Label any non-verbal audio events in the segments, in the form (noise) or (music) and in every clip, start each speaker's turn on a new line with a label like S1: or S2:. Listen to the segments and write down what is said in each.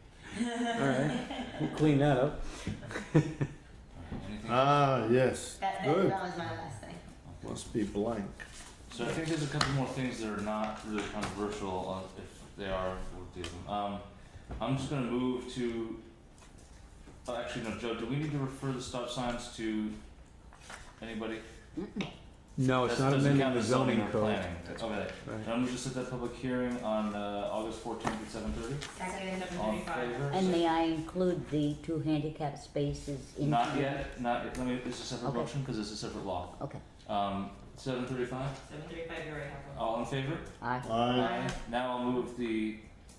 S1: (laughs)
S2: Alright, we'll clean that up.
S3: Anything?
S4: Ah, yes.
S5: That, that,
S4: Good.
S5: that was my last thing.
S4: Must be blank.
S3: So I think there's a couple more things that are not really controversial, on- if they are, we'll deal with them. Um, I'm just gonna move to, oh, actually, no, Joe, do we need to refer the stop signs to anybody?
S2: No, Oh, it's
S3: That
S2: not
S3: doesn't
S2: amending
S3: count
S2: the
S3: as
S2: zoning
S3: or
S2: code.
S3: planning. Okay,
S2: Right.
S3: and I'm gonna set that public hearing on, uh, August fourteenth at seven thirty,
S5: Second.
S3: all in favor?
S1: And may I include the two handicap spaces in?
S3: Not yet, not yet, let me, it's a separate
S1: Okay.
S3: motion, cause it's a separate law.
S1: Okay,
S3: Um, seven thirty-five,
S6: Seven thirty-five, you already have one.
S3: all in favor?
S1: aye.
S4: I
S5: Aye.
S3: Now I'll move the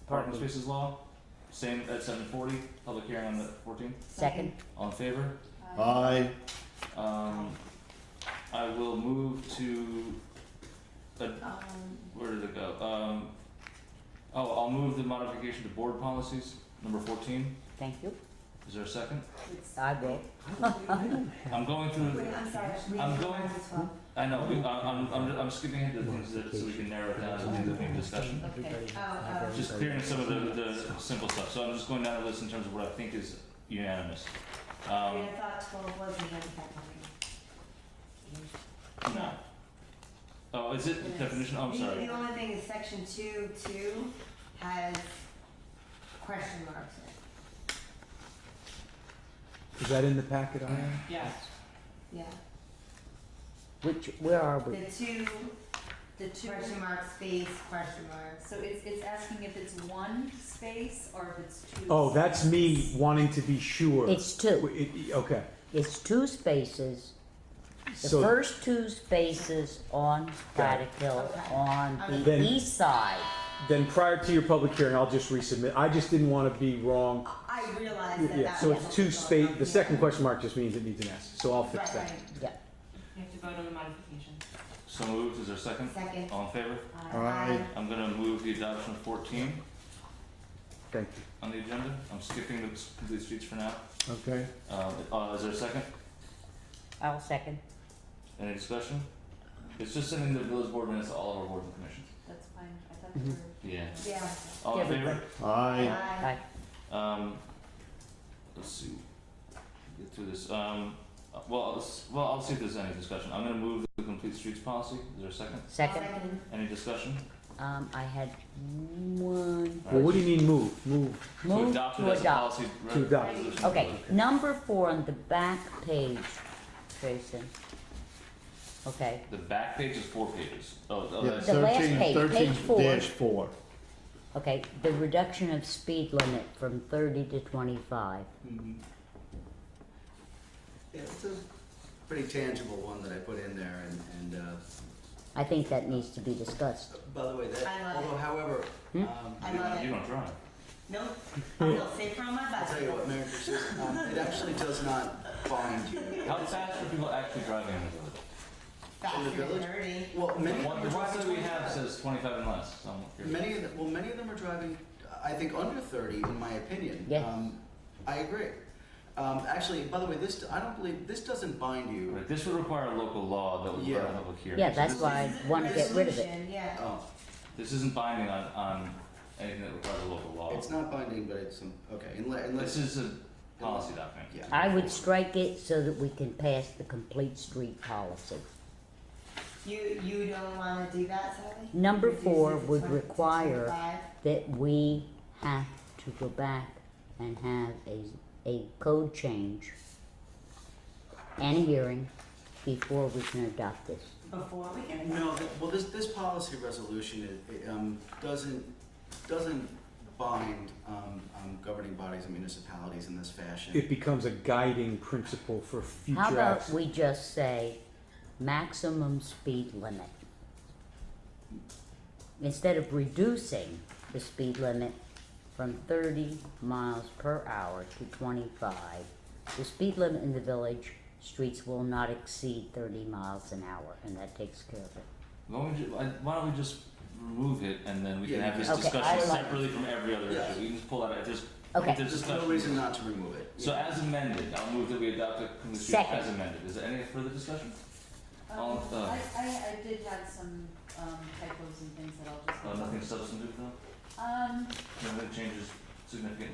S3: parking spaces law, same at seven forty, public hearing on the fourteenth,
S1: Second,
S3: all in favor?
S4: I
S3: Um, I will move to,
S5: Um,
S3: where did it go? Um, oh, I'll move the modification to board policies, number fourteen,
S1: thank you.
S3: is there a second?
S5: it's-
S1: I will.
S3: I'm going through,
S5: Um, Wait, I'm sorry. we
S3: I'm
S5: have
S3: going-
S5: one as well.
S3: I know, we, I- I'm, I'm, I'm skipping ahead to the things that, so we can narrow it down and do the main discussion.
S5: Okay, oh, oh.
S3: Just clearing some of the, the simple stuff, so I'm just going down the list in terms of what I think is unanimous.
S5: Wait,
S3: Um,
S5: I thought twelve was the handicap one.
S3: no. Oh, is it the definition, oh, I'm
S5: The,
S3: sorry,
S5: the only thing is section two, two has question marks in it.
S2: Is that in the packet, Ian?
S6: Yeah.
S5: Yeah,
S1: Which, where are we?
S5: the two, the two question mark space, question marks.
S7: So it's, it's asking if it's one space or if it's two.
S2: Oh, that's me
S7: spaces.
S2: wanting to be sure.
S1: It's two.
S2: W- it- it- Okay,
S1: It's two spaces. The
S2: so
S1: first two spaces on Braddock Hill,
S5: Okay.
S1: on the
S2: Then-
S1: east side.
S2: then prior to your public hearing, I'll just resubmit. I just didn't wanna be wrong.
S5: I- I realized that
S2: Yeah,
S5: that
S2: so
S5: was.
S2: it's two space, the second question mark just means it needs an S, so I'll
S5: Right,
S2: fix that.
S5: right,
S6: You have to vote on the modification.
S3: so moved, is there a second?
S5: second.
S3: All in favor?
S4: Aye.
S3: I'm gonna move the adoption of fourteen
S2: Thank you.
S3: on the agenda. I'm skipping the s- complete streets for now.
S4: Okay.
S3: Uh, uh, is there a second?
S1: I'll second.
S3: Any discussion? It's just sending the village board minutes to all of our boards and commissions.
S7: That's fine, I thought
S2: Mm-hmm.
S7: you were.
S3: Yeah.
S5: Yeah.
S3: All in favor?
S1: Everybody.
S4: I
S5: Aye.
S1: Aye.
S3: Um, let's see. Get through this. Um, uh, well, let's, well, I'll see if there's any discussion. I'm gonna move the complete streets policy. Is there a second?
S1: Second,
S5: Second.
S3: Any discussion?
S1: um, I had one.
S2: Well, what do you mean move? Move.
S3: To
S1: Move
S3: adopt it
S1: to
S3: as a
S1: adopt.
S3: policy. re-
S2: To adopt.
S3: resolution.
S1: Okay, number four on the back page, Jason. Okay,
S3: The back page is four pages. Oh, oh,
S4: yeah,
S3: that's,
S1: The last page,
S4: thirteen, thirteen
S1: page four.
S4: dash four.
S1: okay, the reduction of speed limit from thirty to twenty-five.
S8: Yeah, it's a pretty tangible one that I put in there and, and, uh,
S1: I think that needs to be discussed.
S8: by the way,
S5: I
S8: that,
S5: love it.
S8: although however,
S1: Hmm?
S8: um,
S5: I
S3: you
S5: love
S3: don't, you
S5: it.
S3: don't drive.
S2: (laughs)
S5: Nope, I feel safer on my
S8: I'll tell you what,
S5: bicycle.
S8: Mayor, Christmas, um, it actually does not bind you.
S3: How fast are people actually driving in the village?
S5: Faster
S8: In the
S5: than
S8: village?
S5: thirty.
S8: Well, many
S3: The
S8: of
S3: one,
S8: them
S3: the
S8: are
S3: one that
S8: driving
S3: we have
S8: 25.
S3: says twenty-five and less, so I'm curious.
S8: Many of them, well, many of them are driving, I think, under thirty, in my opinion.
S1: Yeah.
S8: Um, I agree. Um, actually, by the way, this, I don't believe, this doesn't bind you.
S3: Right, this would require a local law that would require a
S8: Yeah.
S3: public hearing.
S1: Yeah,
S3: So
S1: that's
S3: this-
S1: why I want to get rid of it.
S5: Resolution, Yeah.
S8: Oh,
S3: This isn't binding on, on anything that requires a local law.
S8: it's not binding, but it's, um, okay, unless,
S3: This
S8: unless,
S3: is a policy document.
S8: yeah.
S1: I would strike it so that we can pass the complete street policy.
S5: You, you don't wanna do that, Sally?
S1: Number
S5: Reduce it
S1: four
S5: to
S1: would
S5: 20 to
S1: require-
S5: 25?
S1: That we have to go back and have a, a code change and a hearing before we can adopt this.
S5: Before we can.
S8: No, th- well, this, this policy resolution, it, it, um, doesn't, doesn't bind, um, um, governing bodies and municipalities in this
S2: It
S8: fashion.
S2: becomes a guiding principle for future
S1: How about
S2: acts.
S1: we just say maximum speed limit? Instead of reducing the speed limit from thirty miles per hour to twenty-five, the speed limit in the village streets will not exceed thirty miles an hour, and that takes care of it.
S3: Why don't, we ju- I- why don't we just remove it and then we can
S8: Yeah,
S3: have
S8: you
S3: this
S1: can- Okay,
S3: discussion
S1: I like-
S3: separately from every other
S8: Yeah.
S3: issue? We can just pull out, if there's,
S1: Okay.
S3: if there's
S8: There's no
S3: discussion.
S8: reason not to remove it.
S3: So as amended, I'll move that we adopt the commission
S1: Second.
S3: as amended. Is there any further discussion? All
S7: Um,
S3: of the-
S7: I, I, I did have some, um,
S8: Oh,
S7: typos and things that I'll just.
S3: Uh, nothing substantive though?
S7: Um,
S3: No, no changes significantly